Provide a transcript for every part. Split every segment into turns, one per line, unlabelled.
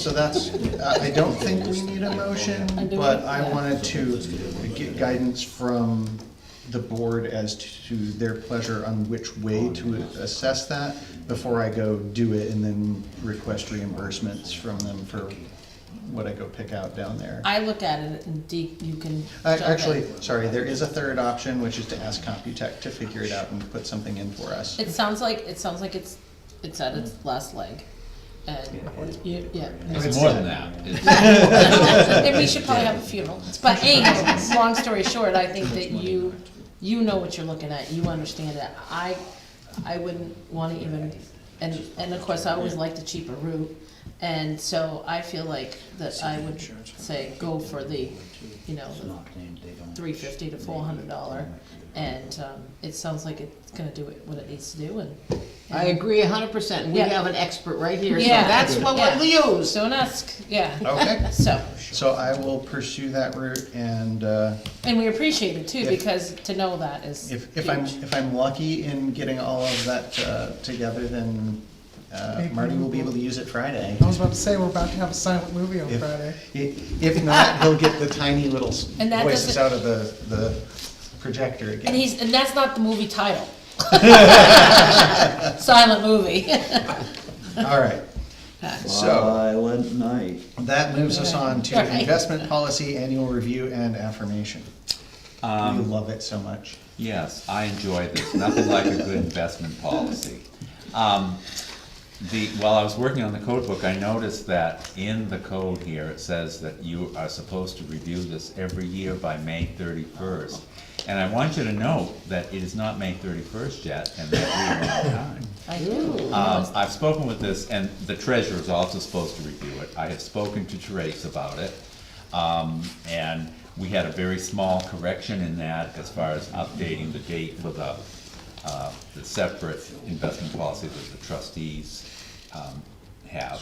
So that's, I I don't think we need a motion, but I wanted to get guidance from the board as to their pleasure on which way to assess that before I go do it and then request reimbursements from them for what I go pick out down there.
I looked at it and Dee, you can.
Uh,
jump in.
Actually, sorry, there is a third option, which is to ask Computech to figure it out and put something in for us.
It sounds like, it sounds like it's, it's at its last leg. And, you- yeah.
It's more than that. It's-
And we should probably have a funeral. But anyway, long story short, I think that you, you know what you're looking at, you understand it. I, I wouldn't wanna even, and, and of course, I always like the cheaper route. And so I feel like that I would say go for the, you know, the three fifty to four hundred dollar, and, um, it sounds like it's gonna do it- what it needs to do, and.
I agree a hundred percent, we
Yeah.
have an expert right here, so
Yeah.
that's what we'll
Yeah.
use.
Don't ask, yeah,
Okay,
so,
so I will pursue that route and, uh,
and we appreciate it too,
If-
because to know that is
If, if I'm,
huge.
if I'm lucky in getting all of that uh, together, then uh, Marty will be able to use it Friday.
I was about to say, we're about to have a silent movie on
If-
Oh, Friday.
i- If not, he'll get the tiny little s-
And that
voices
doesn't-
out of the, the projector
And
again.
he's, and that's not the movie title. Silent movie.
All right, so
Silent night.
that moves us on to
Right.
investment policy, annual review and affirmation. We love it so much.
Yes, I enjoy this. Nothing like a good investment policy. Um, The, while I was working on the code book, I noticed that in the code here, it says that you are supposed to review this every year by May thirty-first. And I want you to note that it is not May thirty-first yet, and that we are on time.
I do.
Um, I've spoken with this, and the treasurer is also supposed to review it. I have spoken to Therese about it. Um, and we had a very small correction in that as far as updating the date for the, uh, the separate investment policy that the trustees, um, have.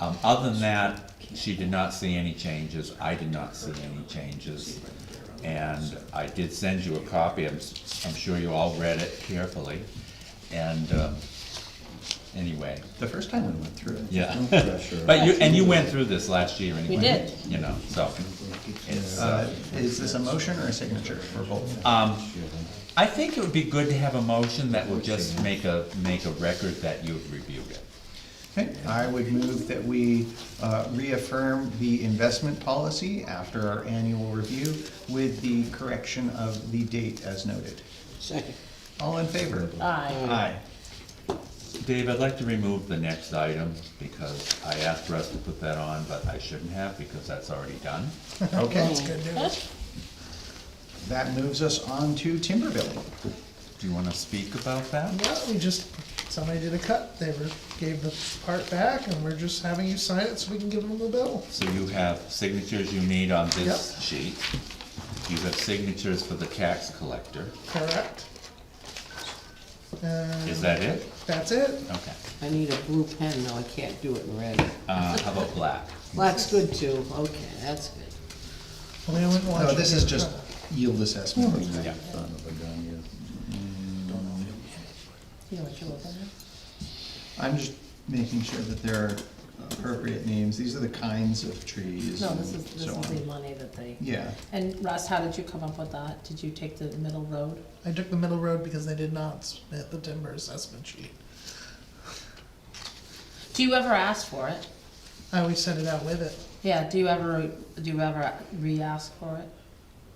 Um, other than that, she did not see any changes. I did not see any changes. And I did send you a copy. I'm, s- I'm sure you all read it carefully. And, um, anyway,
The first time we went through it.
yeah.
No pressure.
But you, and you went through this last year anyway.
did.
You know, so, it's,
Uh,
uh,
Is this a motion or a signature for both?
um, I think it would be good to have a motion that will just make a, make a record that you've reviewed it.
Okay, I would move that we uh, reaffirm the investment policy after our annual review with the correction of the date as noted.
Second.
All in favor?
Aye.
Aye.
Dave, I'd like to remove the next item because I asked Russ to put that on, but I shouldn't have because that's already done.
Okay,
Good news.
that moves us on to timber billing.
Do you wanna speak about that?
Well, we just, somebody did a cut, they were, gave the part back, and we're just having you sign it so we can give them the bill.
So you have signatures you need on this sheet. You have signatures for the tax collector.
Correct?
Is
And
that it?
that's it.
Okay.
I need a blue pen, though, I can't do it in red.
Uh, how about black?
Black's good too, okay, that's good.
Only I wouldn't want
No,
you
this
to
is
get
just
cut.
yield assessment.
Yeah.
Son of a gun,
You know what you're looking at?
I'm just making sure that there are appropriate names. These are the kinds of trees
No,
and
this is, this
so
is the
on.
money that they,
Yeah,
and Russ, how did you come up with that? Did you take the middle road?
I took the middle road because they did not submit the timber assessment sheet.
Do you ever ask for it?
I always sent it out with it.
Yeah, do you ever, do you ever re-ask for it?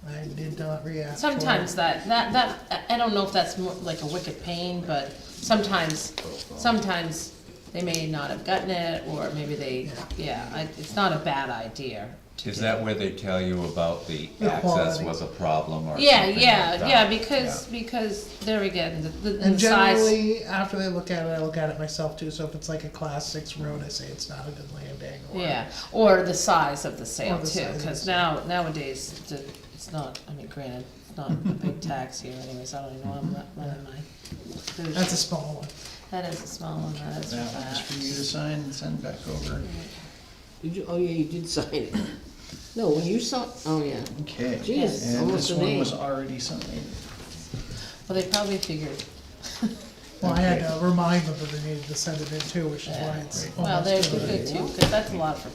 I did not react. to it.
Sometimes that, that, that, I I don't know if that's more like a wicked pain, but sometimes, sometimes they may not have gotten it, or maybe they, yeah, I- it's not a bad idea to
Is
do.
that where they tell you about the
The
access
quality.
was a problem or something
Yeah,
like
yeah,
that?
yeah, because, because there again, the, the-
And
the size.
generally, after they look at it, I look at it myself too, so if it's like a class six road, I say it's not a good landing, or.
Yeah, or the size of the sale
Or the
too,
size of
cause
the
now, nowadays, the- it's not, I mean, granted, it's not a big tax here anyways, I don't even know, I'm not, running my.
That's a small one.
That is a small one, that is for
that one's for you to
that.
sign and send back over.
Did you, oh yeah, you did sign it. No, when you saw, oh yeah,
Okay.
Jeez,
And
Oh,
almost
this
a
one
name.
was already signed.
Well, they probably figured,
Well, I had to remind them that they needed to send it in too, which is why it's
Well,
Oh,
almost
they're
due.
good too, because that's a lot for